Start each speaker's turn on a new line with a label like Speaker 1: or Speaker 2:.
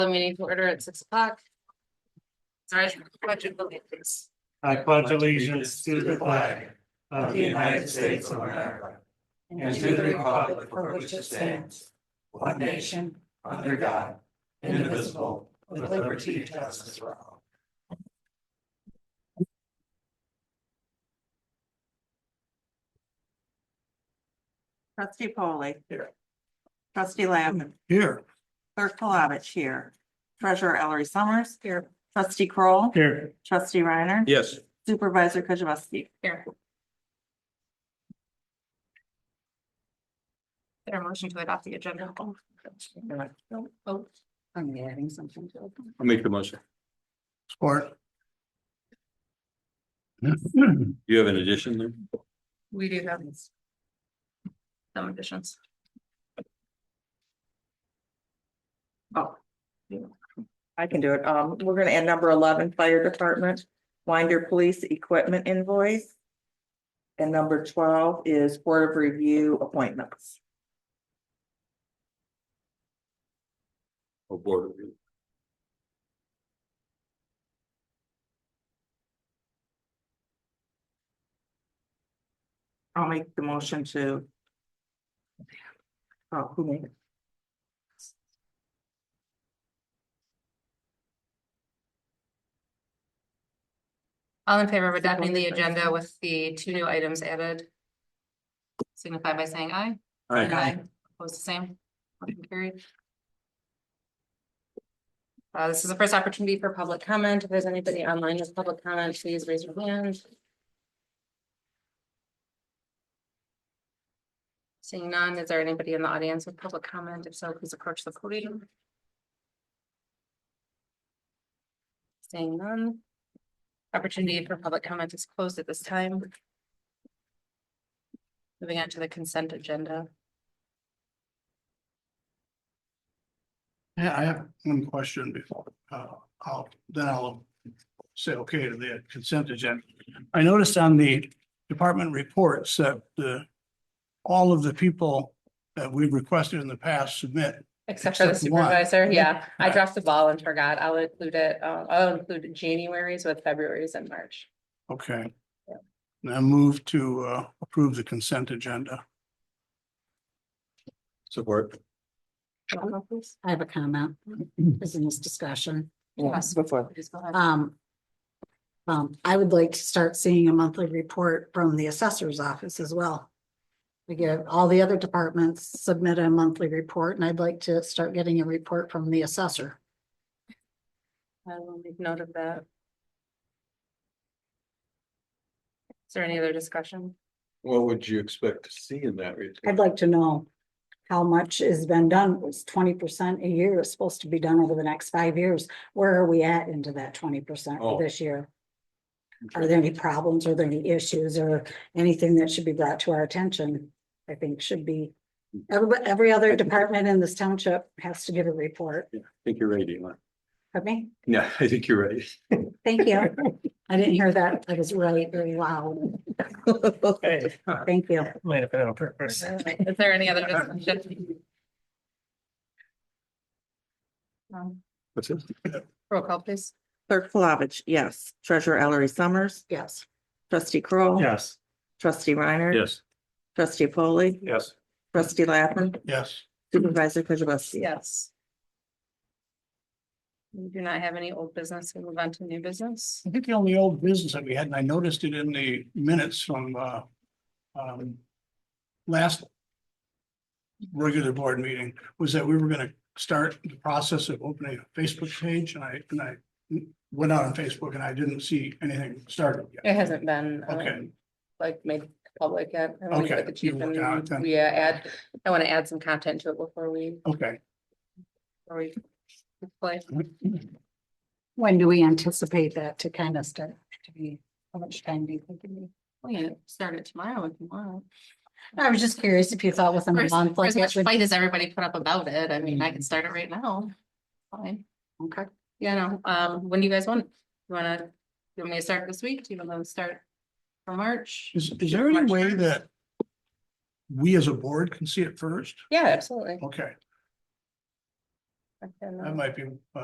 Speaker 1: The meeting to order at six o'clock. Sorry. pledge of allegiance.
Speaker 2: I pledge allegiance to the flag of the United States of America and to the republic for which it stands, one nation, under God, indivisible, with liberty and justice for all.
Speaker 3: Trustee Polly.
Speaker 2: Here. Mm,
Speaker 3: Trustee Lappin,
Speaker 2: Here.
Speaker 3: clerk Palovich here, treasurer Ellery Summers. Here. Trustee Kroll,
Speaker 2: Here.
Speaker 3: trustee Reiner.
Speaker 4: Yes,
Speaker 3: Supervisor Kujabaski.
Speaker 1: Here. There a motion to adopt the agenda. Oh,
Speaker 3: I'm adding something to it.
Speaker 4: I'll make the motion.
Speaker 2: Support.
Speaker 4: You have an addition there?
Speaker 1: we do have. Some additions. Oh,
Speaker 3: I can do it. Um, we're gonna add number eleven, fire department, winder police equipment invoice. And number twelve is board of review appointments.
Speaker 4: Or Oh, board review?
Speaker 3: I'll make the motion to. Oh, who made it?
Speaker 1: all in favor of adopting the agenda with the two new items added? Signify by saying aye.
Speaker 4: Aye.
Speaker 1: Opposed, the same. Motion carried. Uh, this is the first opportunity for public comment. If there's anybody online with public comment, please raise your hand. Seeing none, is there anybody in the audience with public comment? If so, please approach the podium. Seeing none. Opportunity for public comment is closed at this time. Moving on to the consent agenda.
Speaker 2: Yeah, I have one question before, uh, I'll, then I'll say okay to the consent agenda. I noticed on the department reports that the, all of the people that we've requested in the past submit
Speaker 1: Except for the
Speaker 2: Except one.
Speaker 1: supervisor, yeah, I
Speaker 2: Right.
Speaker 1: dropped the ball and forgot, I'll include it, um, I'll include January's with February's and March.
Speaker 2: Okay.
Speaker 1: Yeah.
Speaker 2: Now move to uh, approve the consent agenda.
Speaker 4: Support.
Speaker 5: I have a comment. This is this discussion.
Speaker 1: Yes.
Speaker 3: Before.
Speaker 1: Please go ahead.
Speaker 5: Um. um, I would like to start seeing a monthly report from the assessor's office as well. We get all the other departments submit a monthly report and I'd like to start getting a report from the assessor.
Speaker 1: I will make note of that. Is there any other discussion?
Speaker 4: What would you expect to see in that?
Speaker 5: I'd like to know how much has been done. It was twenty percent a year. It's supposed to be done over the next five years. Where are we at into that twenty percent
Speaker 4: Oh.
Speaker 5: for this year? Are there any problems? Are there any issues or anything that should be brought to our attention? I think should be. Every, every other department in this township has to give a report.
Speaker 4: Think you're ready, Elon.
Speaker 5: Pardon me?
Speaker 4: Yeah, I think you're ready.
Speaker 5: Thank you. I didn't hear that. I was really very loud. Thank you.
Speaker 1: Is there any other discussion? Um,
Speaker 4: What's it?
Speaker 1: Roll call, please.
Speaker 3: Clerk Palovich, yes. Treasurer Ellery Summers,
Speaker 5: Yes.
Speaker 3: trustee Kroll.
Speaker 2: Yes.
Speaker 3: Trustee Reiner.
Speaker 4: Yes.
Speaker 3: Trustee Foley,
Speaker 4: Yes.
Speaker 3: trustee Lappin,
Speaker 2: Yes,
Speaker 3: supervisor Kujabaski.
Speaker 1: Yes. We do not have any old business, we move on to new business.
Speaker 2: I think the only old business that we had, and I noticed it in the minutes from uh. Um. Last. Regular board meeting was that we were gonna start the process of opening a Facebook page and I, and I. Went out on Facebook and I didn't see anything started yet.
Speaker 1: It hasn't been. um,
Speaker 2: Okay.
Speaker 1: like made public yet. I wanna get
Speaker 2: Okay,
Speaker 1: the chief
Speaker 2: you work on it
Speaker 1: and-
Speaker 2: then.
Speaker 1: Yeah, add, I wanna add some content to it before we,
Speaker 2: Okay.
Speaker 1: before we play.
Speaker 5: When do we anticipate that to kind of start to be, how much time do you think? it needs?
Speaker 1: We can start it tomorrow if you want.
Speaker 5: I was just curious if you thought within a
Speaker 1: There's
Speaker 5: month. like
Speaker 1: as
Speaker 5: that
Speaker 1: much
Speaker 5: would-
Speaker 1: fight as everybody put up about it, I mean, I can start it right now. Fine,
Speaker 5: Okay.
Speaker 1: yeah, no, um, when do you guys want, you wanna, you want me to start this week, do you want to start for March?
Speaker 2: Is, is there any
Speaker 1: March
Speaker 2: way
Speaker 1: first.
Speaker 2: that? We as a board can see it first?
Speaker 1: Yeah, absolutely.
Speaker 2: Okay,
Speaker 3: I cannot.
Speaker 2: That might be, uh,